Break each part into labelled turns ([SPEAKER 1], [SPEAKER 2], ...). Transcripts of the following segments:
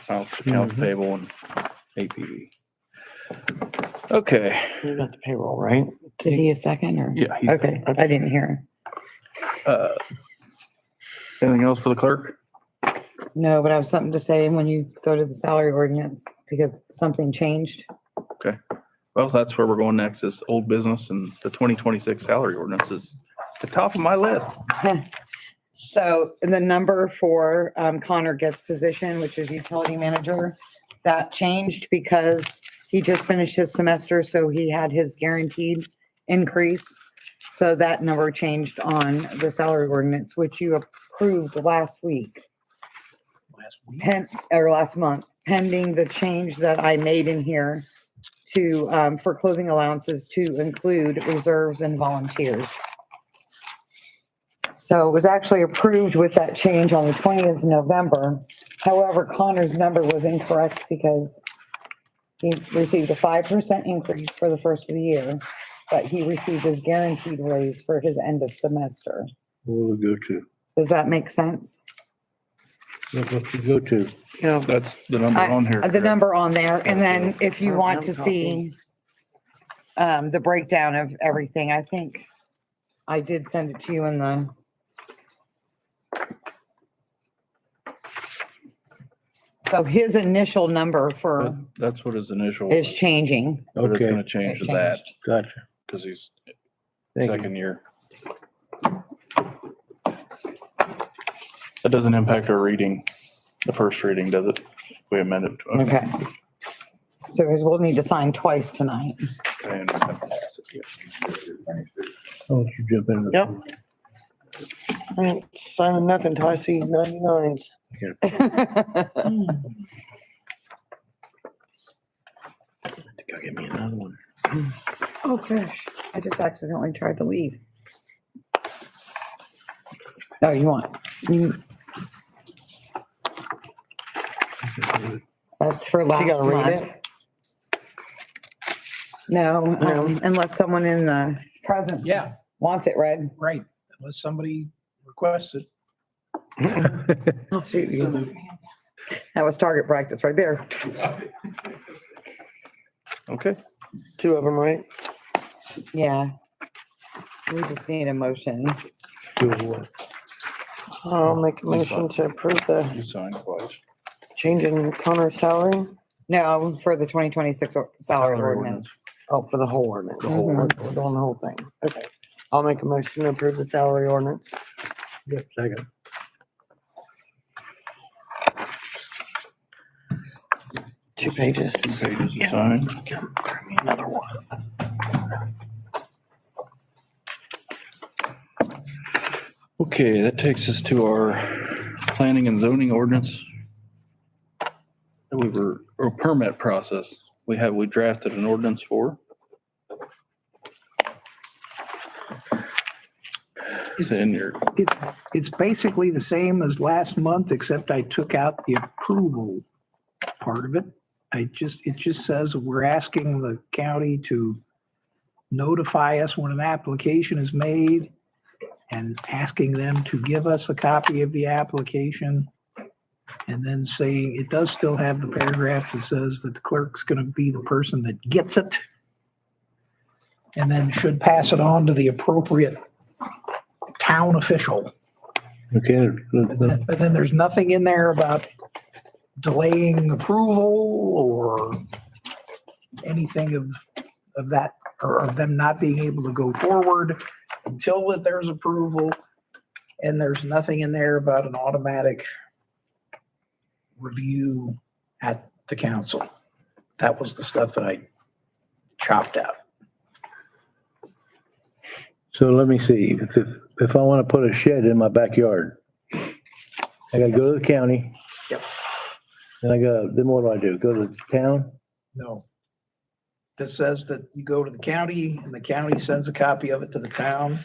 [SPEAKER 1] accounts accounts
[SPEAKER 2] Mhm.
[SPEAKER 1] payable and APV. Okay,
[SPEAKER 2] You got the payroll, right?
[SPEAKER 3] Did he a second or?
[SPEAKER 1] yeah. he-
[SPEAKER 3] Okay, I didn't hear him.
[SPEAKER 1] uh, Anything else for the clerk?
[SPEAKER 3] No, but I have something to say when you go to the salary ordinance because something changed.
[SPEAKER 1] Well, that's where we're going next is old business and the twenty twenty-six salary ordinance is the top of my list.
[SPEAKER 3] So the number for um, Connor Getz's position, which is utility manager, that changed because he just finished his semester, so he had his guaranteed increase. So that number changed on the salary ordinance, which you approved last week. Pen, or last month, pending the change that I made in here to, um, for clothing allowances to include reserves and volunteers. So it was actually approved with that change on the twentieth of November. However, Connor's number was incorrect because he received a five percent increase for the first of the year, but he received his guaranteed raise for his end of semester.
[SPEAKER 4] What would it go to?
[SPEAKER 3] Does that make sense?
[SPEAKER 4] What would it go to?
[SPEAKER 2] Yeah.
[SPEAKER 1] That's the number on here.
[SPEAKER 3] Uh, The number on there, and then
[SPEAKER 2] Okay.
[SPEAKER 3] if you
[SPEAKER 1] Oh,
[SPEAKER 2] I
[SPEAKER 3] want
[SPEAKER 2] have
[SPEAKER 3] to
[SPEAKER 2] a
[SPEAKER 3] see um, the breakdown of everything, I think I did send it to you in the. So his initial number for
[SPEAKER 1] That- That's what his initial,
[SPEAKER 3] is
[SPEAKER 1] was,
[SPEAKER 3] changing.
[SPEAKER 1] but it's
[SPEAKER 4] Okay.
[SPEAKER 1] gonna change to that
[SPEAKER 3] It changed.
[SPEAKER 4] Gotcha.
[SPEAKER 1] because he's
[SPEAKER 4] Thank you.
[SPEAKER 1] second year. That doesn't impact our reading, the first reading, does it? We amend it. to-
[SPEAKER 3] Okay. So guys, we'll need to sign twice tonight.
[SPEAKER 1] I understand.
[SPEAKER 4] Why don't Oh, you jump in?
[SPEAKER 2] Yep. I ain't signing nothing till I see ninety-nines.
[SPEAKER 4] Go get me another one.
[SPEAKER 3] Oh gosh, I just accidentally tried to leave. Oh, you want, you, that's for last
[SPEAKER 2] gotta read it?
[SPEAKER 3] month. No,
[SPEAKER 2] No.
[SPEAKER 3] um, unless someone in the presence
[SPEAKER 5] Yeah,
[SPEAKER 3] wants it read.
[SPEAKER 5] right, unless somebody requests it.
[SPEAKER 3] I'll shoot you. That was target practice right there.
[SPEAKER 1] Okay,
[SPEAKER 2] Two of them, right?
[SPEAKER 3] Yeah. We just need a motion.
[SPEAKER 2] I'll make a motion to approve the
[SPEAKER 1] you signed twice.
[SPEAKER 2] change in Connor's salary.
[SPEAKER 3] No, for the twenty twenty-six salary ordinance.
[SPEAKER 2] Oh, for the whole ordinance.
[SPEAKER 3] The whole Mhm.
[SPEAKER 2] We're doing the whole thing. Okay. I'll make a motion to approve the salary ordinance.
[SPEAKER 4] Yep, second.
[SPEAKER 2] Two pages.
[SPEAKER 1] Pages you signed.
[SPEAKER 2] Another one.
[SPEAKER 1] Okay, that takes us to our planning and zoning ordinance. That we were, or permit process, we have, we drafted an ordinance for. It's in your,
[SPEAKER 5] It, it's basically the same as last month, except I took out the approval part of it. I just, it just says we're asking the county to notify us when an application is made and asking them to give us a copy of the application. And then saying, it does still have the paragraph that says that the clerk's going to be the person that gets it. And then should pass it on to the appropriate town official.
[SPEAKER 4] Okay.
[SPEAKER 5] But then there's nothing in there about delaying approval or anything of, of that, or of them not being able to go forward until that there's approval. And there's nothing in there about an automatic review at the council. That was the stuff that I chopped out.
[SPEAKER 4] So let me see, if, if, if I want to put a shed in my backyard, I gotta go to the county.
[SPEAKER 5] Yep.
[SPEAKER 4] Then I go, then what do I do? Go to town?
[SPEAKER 5] No. This says that you go to the county and the county sends a copy of it to the town.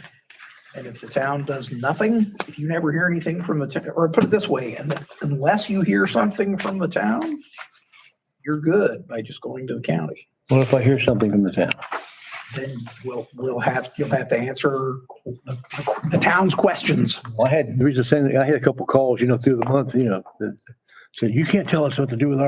[SPEAKER 5] And if the town does nothing, if you never hear anything from the, town, or put it this way, un- unless you hear something from the town, you're good by just going to the county.
[SPEAKER 4] What if I hear something from the town?
[SPEAKER 5] Then we'll, we'll have, you'll have to answer the the town's questions.
[SPEAKER 4] Well, I had, the reason I'm saying, that, I had a couple calls, you know, through the month, you know, that said, you can't tell us what to do with our